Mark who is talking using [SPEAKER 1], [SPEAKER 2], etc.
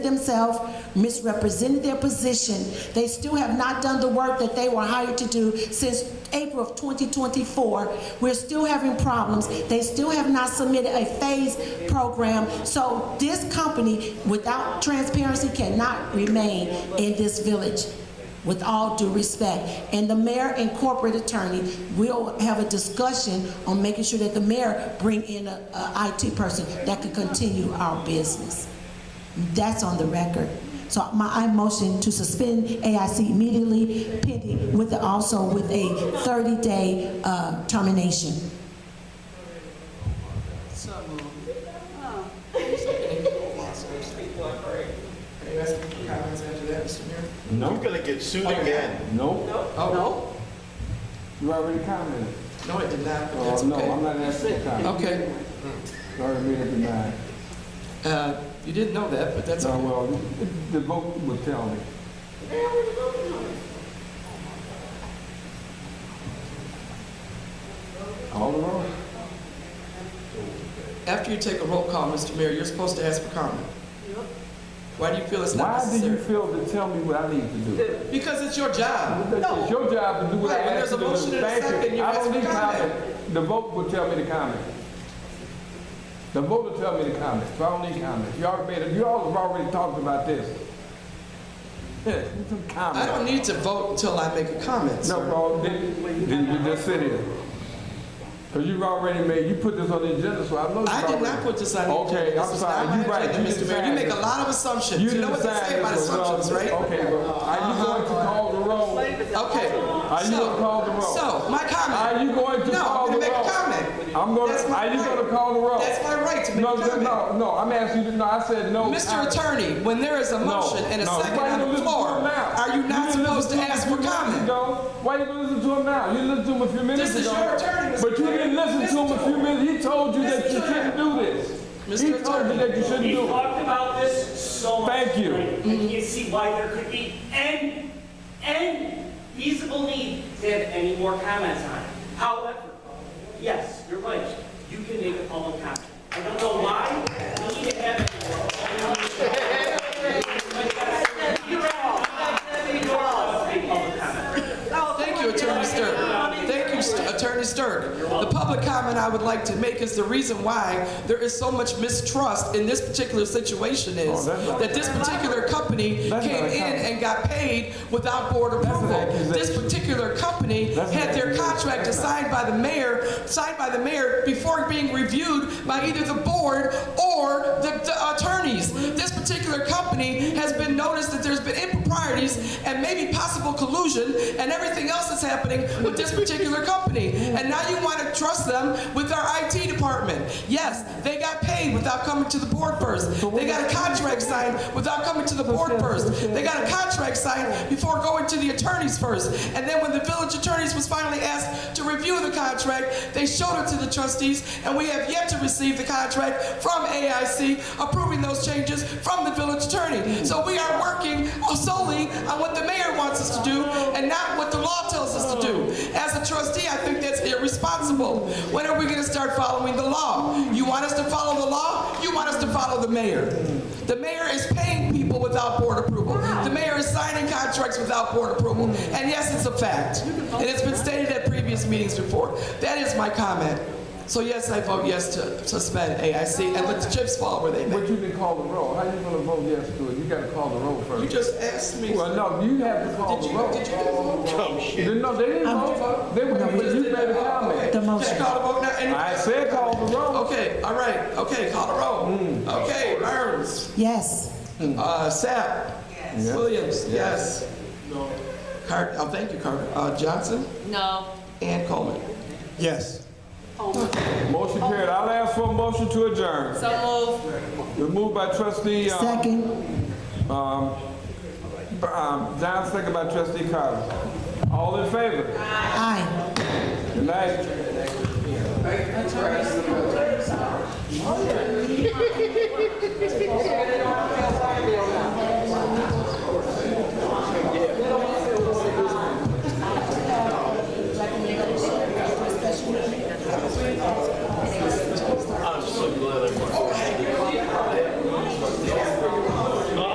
[SPEAKER 1] themselves, misrepresented their position. They still have not done the work that they were hired to do since April of 2024. We're still having problems. They still have not submitted a phase program. So this company, without transparency, cannot remain in this village. With all due respect, and the mayor and corporate attorney will have a discussion on making sure that the mayor bring in a, a IT person that can continue our business. That's on the record. So my, I motion to suspend AIC immediately pending with, also with a 30-day uh, termination.
[SPEAKER 2] Are you asking for comments after that, Mr. Mayor?
[SPEAKER 3] No.
[SPEAKER 4] You're gonna get sued again.
[SPEAKER 3] No,
[SPEAKER 2] Oh,
[SPEAKER 3] you already commented.
[SPEAKER 2] no, it did not, but
[SPEAKER 3] Oh,
[SPEAKER 2] that's
[SPEAKER 3] no, I'm
[SPEAKER 2] okay.
[SPEAKER 3] not asking for comment.
[SPEAKER 2] Okay,
[SPEAKER 3] Sorry, I made up your mind.
[SPEAKER 2] uh, you didn't know that, but that's
[SPEAKER 3] No,
[SPEAKER 2] all.
[SPEAKER 3] well, the vote would tell me. Alderman?
[SPEAKER 2] After you take a roll call, Mr. Mayor, you're supposed to ask for comment. Why do you feel it's not
[SPEAKER 3] Why do you
[SPEAKER 2] necessary?
[SPEAKER 3] feel to tell me what I need to do?
[SPEAKER 2] Because it's your job.
[SPEAKER 3] It's your job to do what I
[SPEAKER 2] Right, when
[SPEAKER 3] ask
[SPEAKER 2] there's
[SPEAKER 3] you
[SPEAKER 2] a
[SPEAKER 3] to do.
[SPEAKER 2] motion and a
[SPEAKER 3] Thank
[SPEAKER 2] second, you
[SPEAKER 3] I
[SPEAKER 2] ask
[SPEAKER 3] don't
[SPEAKER 2] for
[SPEAKER 3] need
[SPEAKER 2] comment.
[SPEAKER 3] comment. The vote will tell me to comment. The vote will tell me to comment, so I don't need comment. You already made, it- you all have already talked about this. Yeah, some
[SPEAKER 2] I
[SPEAKER 3] comment.
[SPEAKER 2] don't need to vote until I make a comment,
[SPEAKER 3] No,
[SPEAKER 2] sir.
[SPEAKER 3] bro, then, then you just sit here. Cause you've already made, you put this on the agenda, so I know you
[SPEAKER 2] I did
[SPEAKER 3] already-
[SPEAKER 2] not put this on the agenda.
[SPEAKER 3] Okay,
[SPEAKER 2] This
[SPEAKER 3] I'm
[SPEAKER 2] is
[SPEAKER 3] sorry,
[SPEAKER 2] not my
[SPEAKER 3] you right.
[SPEAKER 2] agenda, Mr.
[SPEAKER 3] You
[SPEAKER 2] Mayor, you
[SPEAKER 3] decided.
[SPEAKER 2] make a lot of assumptions. You know what they
[SPEAKER 3] decided
[SPEAKER 2] say about
[SPEAKER 3] this was wrong.
[SPEAKER 2] assumptions, right? Uh-huh.
[SPEAKER 3] Okay, well, are you going to call the roll?
[SPEAKER 2] Okay.
[SPEAKER 3] Are you
[SPEAKER 2] so-
[SPEAKER 3] gonna call the roll?
[SPEAKER 2] So, my comment.
[SPEAKER 3] Are you going to
[SPEAKER 2] No,
[SPEAKER 3] call
[SPEAKER 2] I'm
[SPEAKER 3] the
[SPEAKER 2] gonna
[SPEAKER 3] roll?
[SPEAKER 2] make a comment.
[SPEAKER 3] I'm gonna-
[SPEAKER 2] That's my
[SPEAKER 3] are you
[SPEAKER 2] right.
[SPEAKER 3] gonna call the roll?
[SPEAKER 2] That's my right to make a
[SPEAKER 3] No,
[SPEAKER 2] comment.
[SPEAKER 3] no, no, I'm asking you, no, I said no. I-
[SPEAKER 2] Mr. Attorney, when there is a motion and a
[SPEAKER 3] no.
[SPEAKER 2] second
[SPEAKER 3] Why you
[SPEAKER 2] on
[SPEAKER 3] gonna
[SPEAKER 2] the
[SPEAKER 3] listen
[SPEAKER 2] floor,
[SPEAKER 3] to him now?
[SPEAKER 2] are you not
[SPEAKER 3] didn't
[SPEAKER 2] supposed to
[SPEAKER 3] listen him
[SPEAKER 2] ask
[SPEAKER 3] a
[SPEAKER 2] for
[SPEAKER 3] few minutes
[SPEAKER 2] comment?
[SPEAKER 3] ago. Why you gonna listen to him now? You listened to him a few minutes ago.
[SPEAKER 2] is your attorney, Mr.
[SPEAKER 3] But you
[SPEAKER 2] Mayor.
[SPEAKER 3] didn't listen to him a few minutes, he told you that
[SPEAKER 2] Listen
[SPEAKER 3] you
[SPEAKER 2] to
[SPEAKER 3] shouldn't do this.
[SPEAKER 2] Mr.
[SPEAKER 3] He told you
[SPEAKER 2] Attorney.
[SPEAKER 3] that you shouldn't
[SPEAKER 5] We
[SPEAKER 3] do it.
[SPEAKER 5] talked about this so much.
[SPEAKER 3] Thank you.
[SPEAKER 5] tonight. I can't see why there could be any, any feasible need to have any more comments on it. However, yes, you're right, you can make a public comment. I don't know why we need to have it.
[SPEAKER 2] Thank you, Attorney Stirk. Thank you, St- Attorney Stirk. The public comment I would like to make is the reason why there is so much mistrust in this particular situation is
[SPEAKER 3] Oh, that's not-
[SPEAKER 2] that this particular company
[SPEAKER 3] That's not
[SPEAKER 2] came
[SPEAKER 3] a
[SPEAKER 2] in
[SPEAKER 3] comment.
[SPEAKER 2] and got paid without board approval.
[SPEAKER 3] accusation.
[SPEAKER 2] This particular company
[SPEAKER 3] That's
[SPEAKER 2] had
[SPEAKER 3] not
[SPEAKER 2] their
[SPEAKER 3] accusation.
[SPEAKER 2] contract assigned by the mayor, signed by the mayor before being reviewed by either the board or the, the attorneys. This particular company has been noticed that there's been improprieties and maybe possible collusion and everything else that's happening with this particular company. And now you want to trust them with our IT department. Yes, they got paid without coming to the board first. They got a contract signed without coming to the board first. They got a contract signed before going to the attorneys first. And then when the village attorneys was finally asked to review the contract, they showed it to the trustees, and we have yet to receive the contract from AIC approving those changes from the village attorney. So we are working solely on what the mayor wants us to do and not what the law tells us to do. As a trustee, I think that's irresponsible. When are we going to start following the law? You want us to follow the law? You want us to follow the mayor? The mayor is paying people without board approval. The mayor is signing contracts without board approval. And yes, it's a fact. And it's been stated at previous meetings before. That is my comment. So yes, I vote yes to suspend AIC and let the chips fall where they may.
[SPEAKER 3] But you didn't call the roll. How you gonna vote yes to it? You gotta call the roll
[SPEAKER 2] You
[SPEAKER 3] first.
[SPEAKER 2] just asked me.
[SPEAKER 3] Well, no, you have to call
[SPEAKER 2] Did
[SPEAKER 3] the
[SPEAKER 2] you,
[SPEAKER 3] roll.
[SPEAKER 2] did you get a vote?
[SPEAKER 4] Oh, shit.
[SPEAKER 3] Then, No, they didn't vote. They, were- but you made a comment.
[SPEAKER 2] Okay.
[SPEAKER 1] The motion.
[SPEAKER 2] Just call the vote now. Any-
[SPEAKER 3] I said call the roll.
[SPEAKER 2] Okay, all right, okay, call the roll. Okay, Burns.
[SPEAKER 1] Yes.
[SPEAKER 2] Uh, Sapp.
[SPEAKER 3] Yeah.
[SPEAKER 2] Williams, yes. Carter, oh, thank you, Carter. Uh, Johnson
[SPEAKER 6] No.
[SPEAKER 2] and Coleman.
[SPEAKER 3] Yes. Motion carried. I'll ask for a motion to adjourn.
[SPEAKER 6] So moved.
[SPEAKER 3] We're moved by trustee, um,
[SPEAKER 1] Second.
[SPEAKER 3] um, John, second by trustee Carter. All in favor?
[SPEAKER 1] Aye.
[SPEAKER 3] Good night.